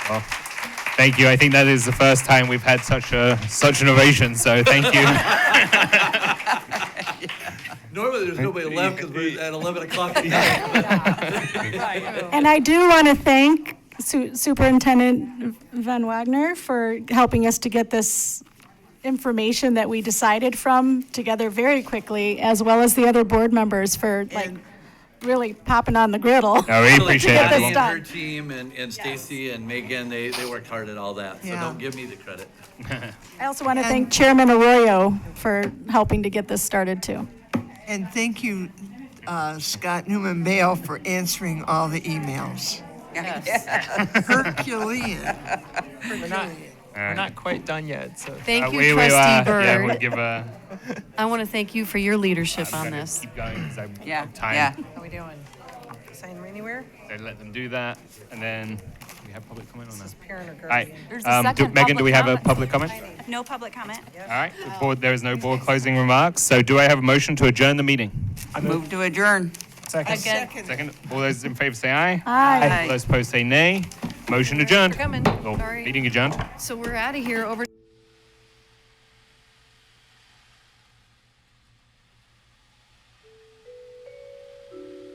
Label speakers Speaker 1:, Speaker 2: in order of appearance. Speaker 1: Well, thank you. I think that is the first time we've had such a such an ovation. So thank you.
Speaker 2: Normally, there's nobody left because we're at 11 o'clock at night.
Speaker 3: And I do want to thank Su- Superintendent Van Wagner for helping us to get this information that we decided from together very quickly, as well as the other board members for like
Speaker 2: And-
Speaker 3: really popping on the griddle.
Speaker 1: I really appreciate
Speaker 3: Get this
Speaker 1: everyone.
Speaker 2: And
Speaker 3: done.
Speaker 2: her team and, and Stacy and Megan, they, they worked hard at all that, so
Speaker 4: Yeah.
Speaker 2: don't give me the credit.
Speaker 3: I also want to thank Chairman Arroyo for helping to get this started too.
Speaker 4: And thank you, uh, Scott Newman Bale, for answering all the emails. Herculean.
Speaker 5: We're not, we're not quite done yet, so.
Speaker 1: Uh,
Speaker 6: Thank you,
Speaker 1: we- we, uh,
Speaker 6: Trustee
Speaker 1: Yeah, we'll
Speaker 6: Bird.
Speaker 1: give a.
Speaker 6: I want to thank you for your leadership on
Speaker 1: gonna
Speaker 6: this.
Speaker 1: Keep going 'cause I won't
Speaker 7: Yeah,
Speaker 1: have time.
Speaker 7: yeah.
Speaker 8: How we doing? Sign anywhere?
Speaker 1: So let them do that, and then do we have public comment on that.
Speaker 8: Parent or
Speaker 1: All
Speaker 8: guardian?
Speaker 1: right.
Speaker 9: There's a
Speaker 1: Um, do,
Speaker 9: second
Speaker 1: Megan, do we have a public
Speaker 9: public
Speaker 1: comment?
Speaker 9: No public comment.
Speaker 1: All right. The board, there is no board closing remarks. So do I have a motion to adjourn the meeting?
Speaker 7: Move to adjourn.
Speaker 6: Again,
Speaker 1: Second. All those in favor say aye.
Speaker 3: Aye.
Speaker 1: All those opposed say nay. Motion adjourned.
Speaker 6: coming.
Speaker 1: Oh,
Speaker 6: Sorry.
Speaker 1: meeting adjourned.
Speaker 6: so we're out of here over.